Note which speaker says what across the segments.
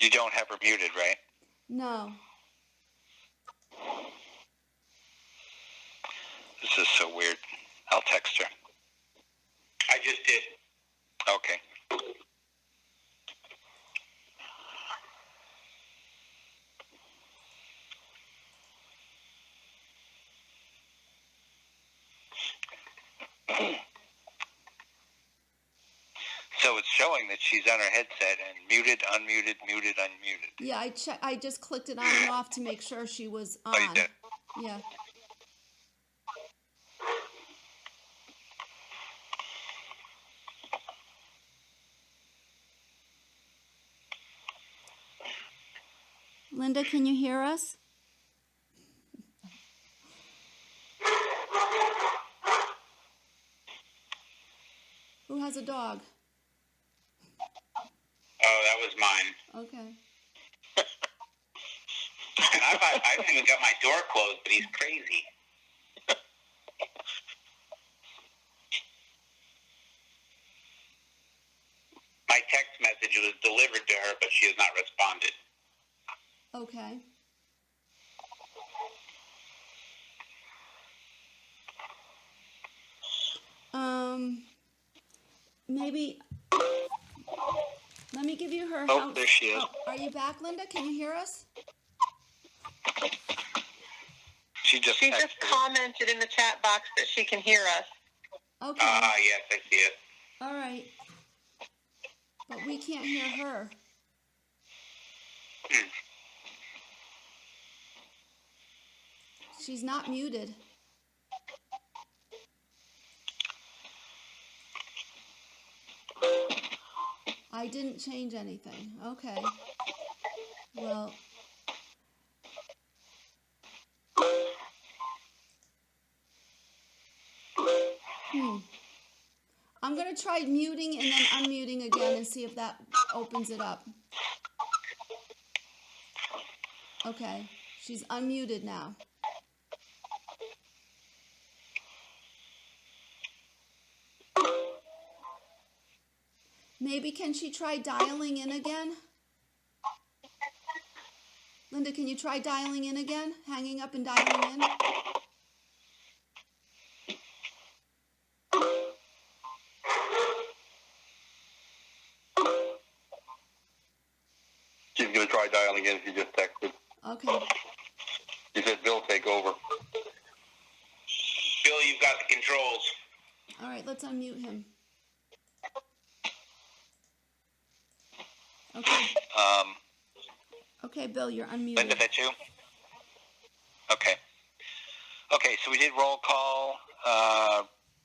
Speaker 1: You don't have her muted, right?
Speaker 2: No.
Speaker 1: This is so weird. I'll text her. I just did. Okay. So it's showing that she's on her headset and muted, unmuted, muted, unmuted.
Speaker 2: Yeah, I che- I just clicked it on and off to make sure she was on.
Speaker 1: Oh, you did.
Speaker 2: Yeah. Linda, can you hear us? Who has a dog?
Speaker 1: Oh, that was mine.
Speaker 2: Okay.
Speaker 1: I've, I've even got my door closed, but he's crazy. my text message was delivered to her, but she has not responded.
Speaker 2: Okay. Um, maybe. Let me give you her.
Speaker 1: Oh,
Speaker 2: house-
Speaker 1: there she is.
Speaker 2: Oh, are you back, Linda? Can you hear us?
Speaker 1: She just
Speaker 3: She just commented in the chat box that she can hear us.
Speaker 2: Okay.
Speaker 1: Ah, yes, I see it.
Speaker 2: All right. But we can't hear her. She's not muted. I didn't change anything. Okay. Well, hmm. I'm going to try muting and then unmuting again and see if that opens it up. Okay, she's unmuted now. Maybe can she try dialing in again? Linda, can you try dialing in again? Hanging up and dialing in?
Speaker 1: She's going to try dialing in. She just texted.
Speaker 2: Okay.
Speaker 1: She said, Bill, take over. Bill, you've got the controls.
Speaker 2: All right, let's unmute him. Okay,
Speaker 1: Um,
Speaker 2: okay, Bill, you're
Speaker 1: Linda,
Speaker 2: unmuted.
Speaker 1: that you? Okay. Okay, so we did roll call. Uh,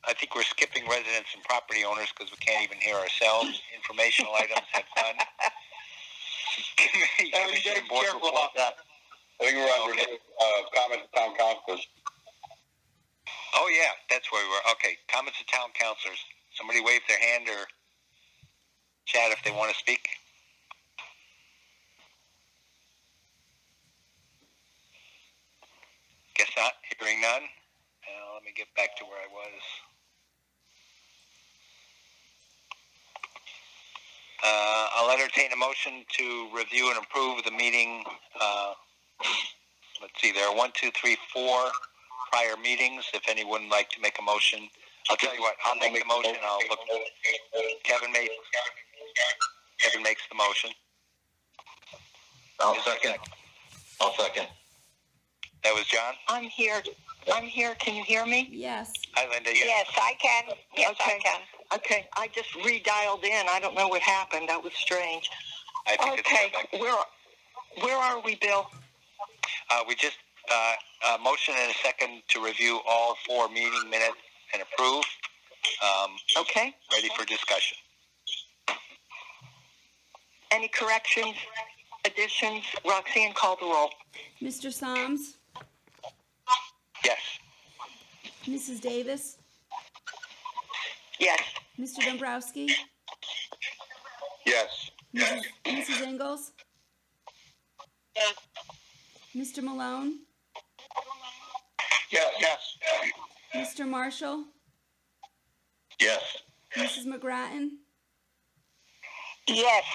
Speaker 1: I think we're skipping residents and property owners because we can't even hear ourselves. Informational items have none. Committee,
Speaker 4: Yeah, we
Speaker 1: commission,
Speaker 4: gotta
Speaker 1: and
Speaker 4: be
Speaker 1: board
Speaker 4: careful
Speaker 1: report.
Speaker 4: about that. I think we're on uh, comments to town councilors.
Speaker 1: Oh, yeah, that's where we were. Okay, comments to town councilors. Somebody wave their hand or chat if they want to speak. Guess not. Hearing none. Uh, let me get back to where I was. Uh, I'll entertain a motion to review and approve the meeting. Uh, let's see, there are one, two, three, four prior meetings. If anyone would like to make a motion, I'll tell you what, I'll make the motion. I'll look. Kevin made, Kevin makes the motion.
Speaker 4: I'll second. I'll second.
Speaker 1: That was John.
Speaker 3: I'm here. I'm here. Can you hear me?
Speaker 2: Yes,
Speaker 1: Hi, Linda. Yeah.
Speaker 3: I can.
Speaker 5: Yes, I
Speaker 3: okay. Okay. I just redialed in. I don't know what happened. That was strange.
Speaker 1: I think
Speaker 3: Okay.
Speaker 1: it's Rebecca.
Speaker 3: Where where are we, Bill?
Speaker 1: Uh, we just, uh, a motion and a second to review all four meeting minutes and approve. Um,
Speaker 3: Okay.
Speaker 1: ready for discussion.
Speaker 3: Any corrections, additions? Roxanne, call the roll.
Speaker 2: Mr. Soms,
Speaker 1: Yes.
Speaker 2: Mrs. Davis,
Speaker 3: Yes.
Speaker 2: Mr. Dombrowski,
Speaker 4: Yes.
Speaker 2: Mrs. Mrs. Ingles, Mr. Malone,
Speaker 4: Yes. Yes.
Speaker 2: Mr. Marshall,
Speaker 4: Yes.
Speaker 2: Mrs. McGrattan,
Speaker 3: Yes.